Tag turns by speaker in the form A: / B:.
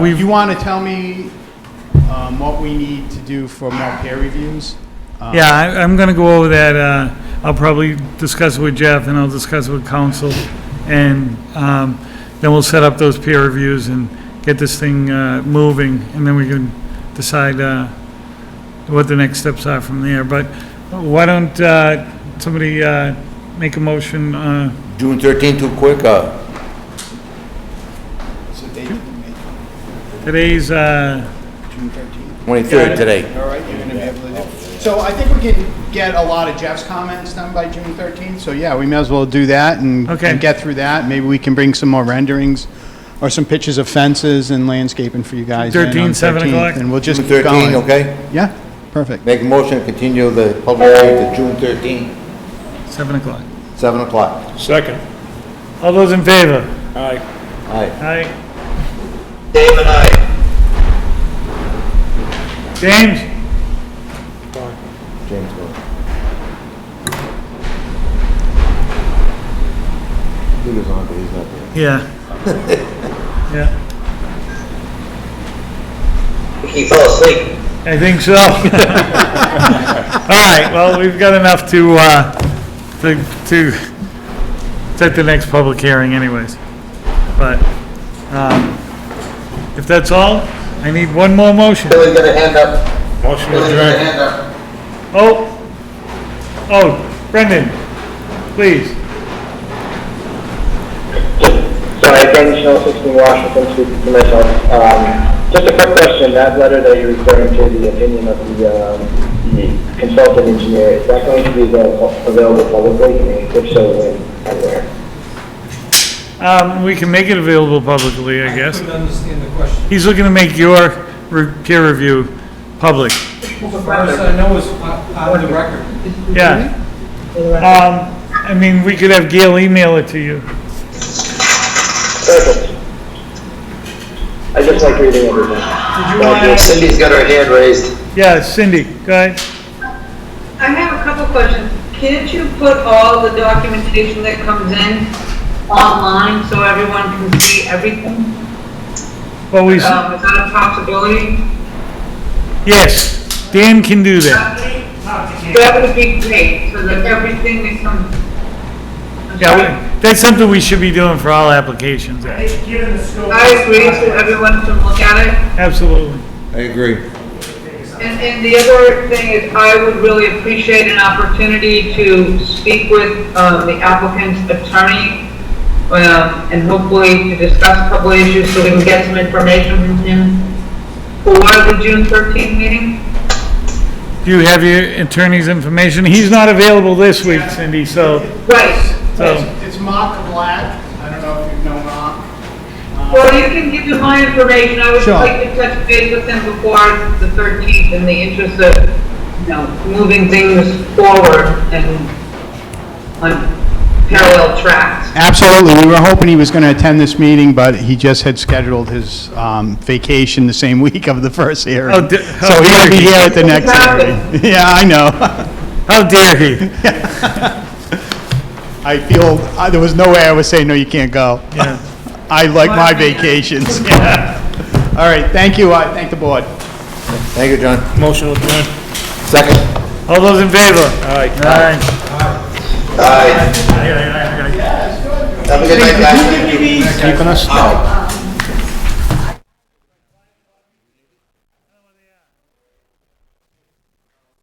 A: If you want to tell me um, what we need to do for more peer reviews? um,
B: Yeah, I- I'm going to go over that. uh, I'll probably discuss it with Jeff, and I'll discuss it with council, and um, then we'll set up those peer reviews and get this thing uh, moving, and then we can decide uh, what the next steps are from there. But why don't uh, somebody uh, make a motion? uh,
C: June 13 too quick, uh,
A: So they can make it
B: Today's, uh,
A: June 13th.
C: 23rd today.
A: All right, you're going to be able to do. So I think we can get a lot of Jeff's comments done by June 13th. So yeah, we may as well do that and
B: Okay.
A: and get through that. Maybe we can bring some more renderings or some pictures of fences and landscaping for you guys. in on
B: 13th, seven
A: 13th,
B: o'clock?
A: And we'll just
C: June
A: keep
C: 13,
A: going.
C: okay?
A: Yeah, perfect.
C: Make a motion to continue the public hearing to June 13,
B: 7 o'clock.
C: 7 o'clock.
D: Second.
B: All those in favor?
D: Aye.
C: Aye.
B: Aye. David, aye. James?
C: James, go. He was on, but he's not there.
B: Yeah. Yeah,
E: He fell asleep.
B: I think so. All right, well, we've got enough to, uh, to, to set the next public hearing anyways. But, um, if that's all, I need one more motion.
E: Billy's got a hand up.
D: Motion
E: Billy's got a
D: adjourned.
E: hand up.
B: Oh, oh, Brendan, please.
F: Sorry, Brendan Schnell, 16 Washington, speaking to myself. Um, Just a quick question, that letter that you're referring to, the opinion of the um, the consultant engineer, is that going to be available available publicly? And If so, when and where?
B: Um, we can make it available publicly, I guess.
G: couldn't understand the question.
B: He's looking to make your re- peer review public.
G: The first I know is on on the record.
B: Yeah. Um, I mean, we could have Gail email it to you.
F: Perfect. I just like reading everything. Thank you.
E: Cindy's got her hand raised.
B: Yeah, Cindy, go ahead.
H: I have a couple questions. Can't you put all the documentation that comes in online so everyone can see everything?
B: Well, we, s-
H: Um, is that a possibility?
B: yes, Dan can do that.
H: That would be great, so that everything that comes. I'm
B: Yeah,
H: sorry.
B: we- that's something we should be doing for all applications, actually.
H: I agree, so everyone can look at it.
B: absolutely.
C: I agree.
H: And, and the other thing is, I would really appreciate an opportunity to speak with, um, the applicant's attorney, um, and hopefully to discuss a couple of issues so we can get some information from him for the June thirteenth meeting.
B: Do you have your attorney's information? He's not available this week, Cindy, so,
H: Right,
B: so,
A: It's Mark Black. I don't know if you know Mark.
H: or you can give him my information, I would
A: Sure.
H: like to touch base with him before the thirteenth in the interest of, you know, moving things forward and on parallel tracks.
A: Absolutely. We were hoping he was going to attend this meeting, but he just had scheduled his um, vacation the same week of the first hearing.
B: Oh, di-
A: So he'll be here at the next hearing.
H: Exactly.
A: Yeah, I know.
B: how dare he?
A: I feel, I- there was no way I would say, no, you can't go.
B: Yeah.
A: I like my
H: Well, yeah.
A: vacations. Yeah. All right, thank you. I thank the board.
C: Thank you, John.
D: Motion adjourned.
C: Second.
B: All those in favor?
D: Aye.
B: Aye.
E: Aye.
B: Aye, aye, aye, aye.
E: Have a good night, guys.
A: Keeping us?
E: Aye.